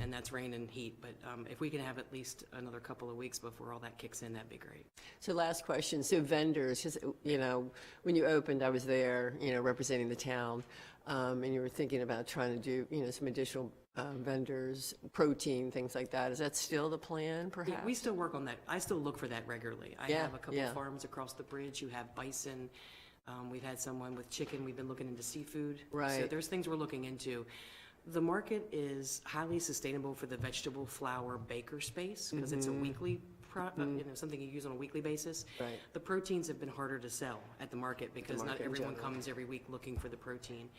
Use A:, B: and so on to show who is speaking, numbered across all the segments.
A: and that's rain and heat, but um, if we can have at least another couple of weeks before all that kicks in, that'd be great.
B: So last question, so vendors, just, you know, when you opened, I was there, you know, representing the town, um, and you were thinking about trying to do, you know, some additional um, vendors, protein, things like that. Is that still the plan,
A: Yeah, We
B: perhaps?
A: still work on that. I still look for that regularly. I
B: Yeah,
A: have a couple
B: yeah.
A: farms across the bridge. You have bison. Um, We've had someone with chicken. We've been looking into seafood. So
B: Right.
A: there's things we're looking into. The market is highly sustainable for the vegetable flour baker space because it's a weekly, pro- uh, you know, something you use on a weekly basis.
B: Mm-hmm. Right.
A: The proteins have been harder to sell at the market because not
B: market in
A: everyone
B: general.
A: comes every week looking for the protein.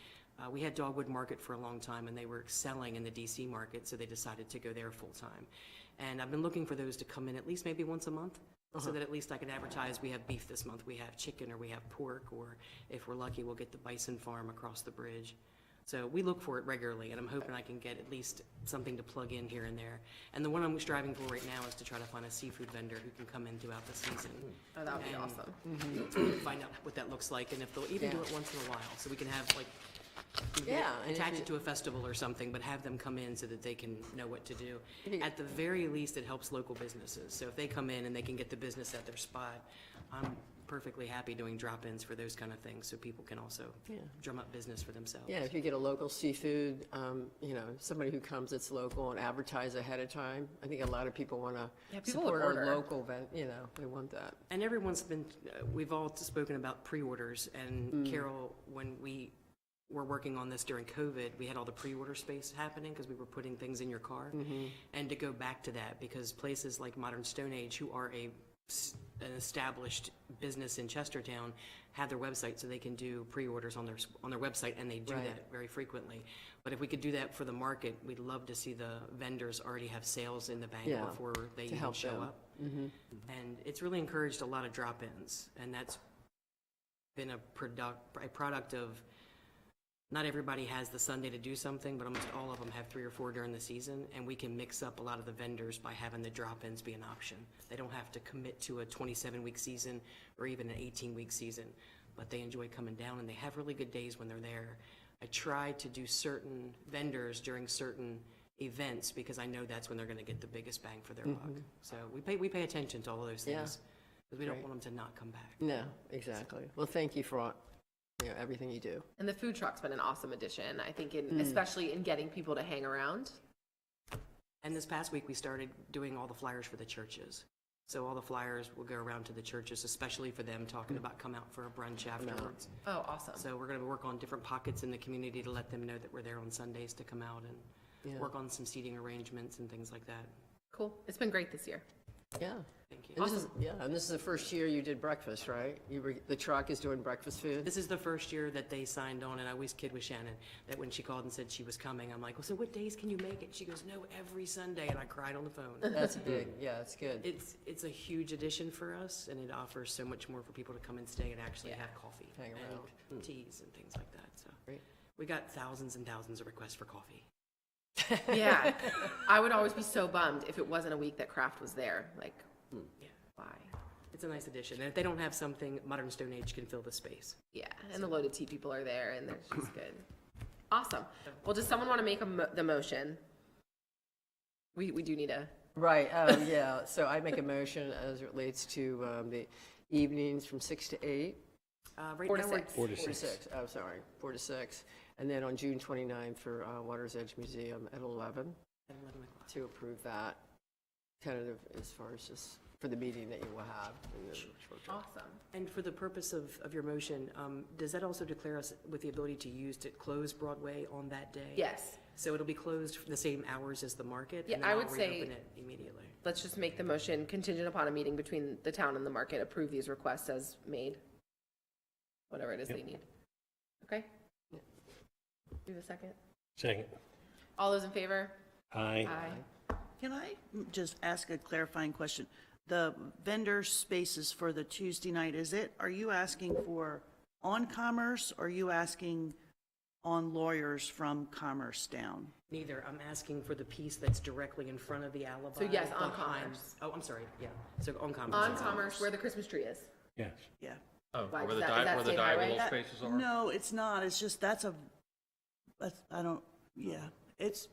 A: Uh, We had Dogwood Market for a long time, and they were excelling in the DC market, so they decided to go there full-time. And I've been looking for those to come in at least maybe once a month, so
C: Uh-huh.
A: that at least I can advertise, we have beef this month, we have chicken, or we have pork, or if we're lucky, we'll get the bison farm across the bridge. So we look for it regularly, and I'm hoping I can get at least something to plug in here and there. And the one I'm striving for right now is to try to find a seafood vendor who can come in throughout the season.
C: Oh, that would be
A: And-
C: awesome.
A: find out what that looks like and if they'll even do
B: Yeah.
A: it once in a while, so we can have like, we can
B: Yeah, and if
A: attach
B: you-
A: it to a festival or something, but have them come in so that they can know what to do. At the very least, it helps local businesses, so if they come in and they can get the business at their spot, I'm perfectly happy doing drop-ins for those kind of things, so people can also drum up business for themselves.
B: Yeah, if you get a local seafood, um, you know, somebody who comes that's local and advertise ahead of time, I think a lot of people want
C: Yeah,
B: to
C: people would
B: support our
C: order.
B: local, ven- you know, they want that.
A: And everyone's been, uh, we've all spoken about pre-orders,
B: Mm.
A: and Carol, when we were working on this during COVID, we had all the pre-order space happening because we were putting things in your car.
B: Mm-hmm.
A: And to go back to that, because places like Modern Stone Age, who are a, s- an established business in Chestertown, have their website so they can do pre-orders on their, s- on their website, and they do
B: Right.
A: that very frequently. But if we could do that for the market, we'd love to see the vendors already have sales in the bank
B: Yeah,
A: before they
B: to
A: even
B: help
A: show
B: them. Mm-hmm.
A: up. And it's really encouraged a lot of drop-ins, and that's been a product, a product of, not everybody has the Sunday to do something, but almost all of them have three or four during the season, and we can mix up a lot of the vendors by having the drop-ins be an option. They don't have to commit to a 27-week season or even an 18-week season, but they enjoy coming down, and they have really good days when they're there. I try to do certain vendors during certain events, because I know that's when they're gonna get the biggest bang for their buck. So we pay, we pay attention to all of those
B: Yeah.
A: things, because we don't
B: Great.
A: want them to not come back.
B: No, exactly. Well, thank you for, all- you know, everything you do.
C: And the food truck's been an awesome addition, I think, in,
A: Hmm.
C: especially in getting people to hang around.
A: And this past week, we started doing all the flyers for the churches. So all the flyers will go around to the churches, especially for them, talking about come out for a brunch afterwards.
C: Oh, awesome.
A: So we're going to work on different pockets in the community to let them know that we're there on Sundays to come out and
B: Yeah.
A: work on some seating arrangements and things like that.
C: Cool. It's been great this year.
B: Yeah.
A: Thank you.
B: And this is- Yeah, and this is the first year you did breakfast, right? You were, the truck is doing breakfast food?
A: This is the first year that they signed on, and I always kid with Shannon that when she called and said she was coming, I'm like, well, so what days can you make it? She goes, no, every Sunday, and I cried on the phone.
B: That's big, yeah, it's good.
A: It's, it's a huge addition for us, and it offers so much more for people to come and stay and actually have coffee.
B: Hang around.
C: Hmm.
A: And teas and things like that, so.
B: Great.
A: We got thousands and thousands of requests for coffee.
C: Yeah. I would always be so bummed if it wasn't a week that Kraft was there. Like, hmm,
A: Yeah.
C: why?
A: It's a nice addition, and if they don't have something, Modern Stone Age can fill the space.
C: Yeah. And the loaded tea people are there and they're just good. Awesome. Well, does someone want to make a mo- the motion? We, we do need a,
B: Right, um, yeah, so I make a motion as it relates to, um, the evenings from six to eight.
A: Uh, right
C: Four to
A: now, we're-
C: six.
B: Four to six. I'm sorry, four to six. And then on June 29th for, uh, Water's Edge Museum at eleven
A: at 11 o'clock.
B: to approve that tentative as far as just for the meeting that you will have. and then-
C: awesome.
A: And for the purpose of, of your motion, um, does that also declare us with the ability to use to close Broadway on that day?
C: Yes.
A: So it'll be closed for the same hours as the market?
C: Yeah,
A: and then
C: I
A: I'll
C: would say-
A: Reopen it immediately.
C: Let's just make the motion contingent upon a meeting between the town and the market, approve these requests as made. Whatever it is they need. Okay? Do the second.
D: Second.
C: All those in favor?
D: Aye.
E: Can I just ask a clarifying question? The vendor spaces for the Tuesday night, is it, are you asking for on Commerce? Are you asking on lawyers from Commerce down?
A: Neither. I'm asking for the piece that's directly in front of the alibi.
C: So yes, on
A: behind-
C: Commerce.
A: Oh, I'm sorry, yeah. So on Commerce.
C: On
A: yeah.
C: Commerce, where the Christmas tree is.
D: Yes.
E: Yeah.
F: Oh,
C: Why,
F: where
C: is
F: the
C: that- is
F: dive,
C: that
F: where the
C: state
F: dive
C: highway?
F: little
E: That-
F: spaces are?
E: No, it's not. It's just, that's a, that's, I don't, yeah. It's